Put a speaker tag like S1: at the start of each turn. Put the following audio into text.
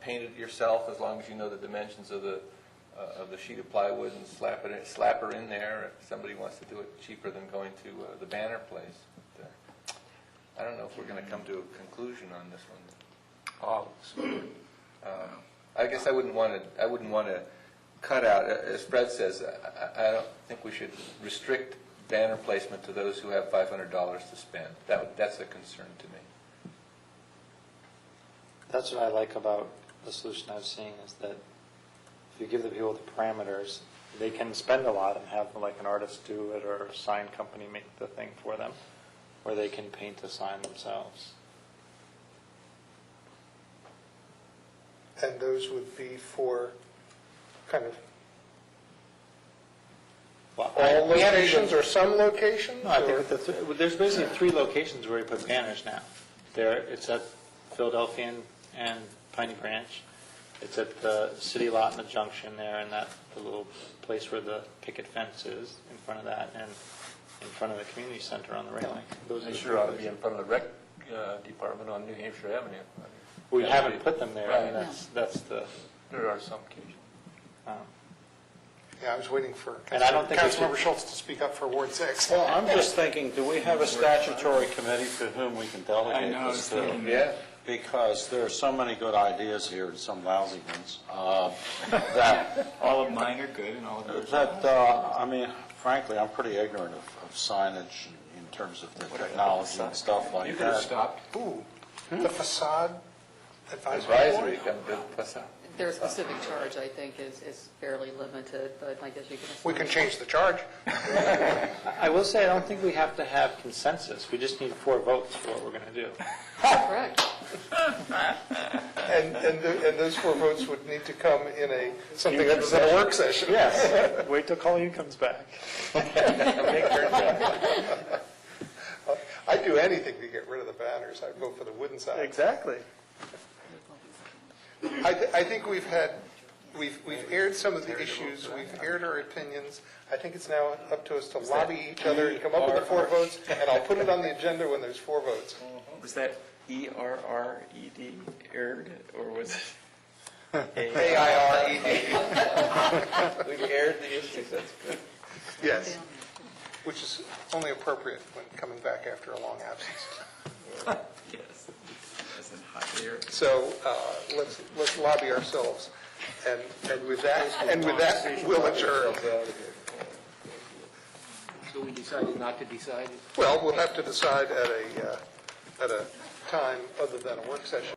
S1: paint it yourself, as long as you know the dimensions of the, uh, of the sheet of plywood and slap it, in- slap her in there, if somebody wants to do it cheaper than going to uh, the banner place. But, uh, I don't know if we're going to come to a conclusion on this one. Paul, um, I guess I wouldn't want to, I wouldn't want to cut out, as Fred says, I- I I don't think we should restrict banner placement to those who have $500 to spend. That, that's a concern to me.
S2: That's what I like about the solution I've seen is that if you give the people the parameters, they can spend a lot and have like an artist do it or a sign company make the thing for them, or they can paint the sign themselves.
S3: And those would be for kind of
S2: Well, I-
S3: all
S2: we have-
S3: locations or some locations?
S2: No, I
S3: or-
S2: think the th- well, there's basically three locations where you put banners now. There, it's at Philadelphia and- and Piney Branch. It's at the city lot in the junction there, and that the little place where the picket fence is in front of that, and in front of the community center on the railing. Those are
S4: They
S2: the
S4: sure ought to
S2: three
S4: be in front of the rec uh, department on New Hampshire Avenue.
S2: places. We haven't put them there,
S4: Right.
S2: and that's, that's the,
S4: There are some occasions.
S2: um,
S3: Yeah, I was waiting for
S2: And I don't think we should-
S3: Councilmember Schultz to speak up for Ward 6.
S5: Well, I'm just thinking, do we have a statutory committee to whom we can
S6: I
S5: delegate
S6: know,
S5: this
S6: I was
S5: to?
S6: thinking
S1: Yeah.
S5: Because there are so many good ideas here and some lousy ones, uh, that,
S6: All of mine are good and all of yours are
S5: that, uh, I mean, frankly, I'm pretty ignorant of of signage in terms of the technology and stuff
S6: You
S5: like
S6: could have
S5: that.
S6: stopped.
S3: Ooh,
S2: hmm?
S3: the facade advisory
S1: Advisory,
S3: board?
S1: come to pass out.
S7: Their specific charge, I think, is, is fairly limited, but I guess you can.
S3: We can change the charge.
S2: I will say, I don't think we have to have consensus. We just need four votes for what we're going to do.
S7: Correct.
S3: And, and the- and those four votes would need to come in a, something that was in a work session.
S2: Yes, wait till Colleen comes back.
S3: I'd do anything to get rid of the banners. I'd go for the wooden sign.
S2: Exactly.
S3: I, th- I think we've had, we've, we've aired some of the issues, we've aired our opinions. I think it's now up to us to lobby each other and come up with the four votes, and I'll put it on the agenda when there's four votes.
S6: Was that E R R E D, aired, or was it?
S3: A-I-R-E-D,
S1: We've aired the issues, that's good.
S3: yes,
S6: Oh.
S3: which is only appropriate when coming back after a long absence.
S6: Yes. As in hot air.
S3: So uh, let's, let's lobby ourselves, and, and with that, and with that, we'll adjourn.
S4: So we decided not to decide?
S3: Well, we'll have to decide at a, uh, at a time other than a work session.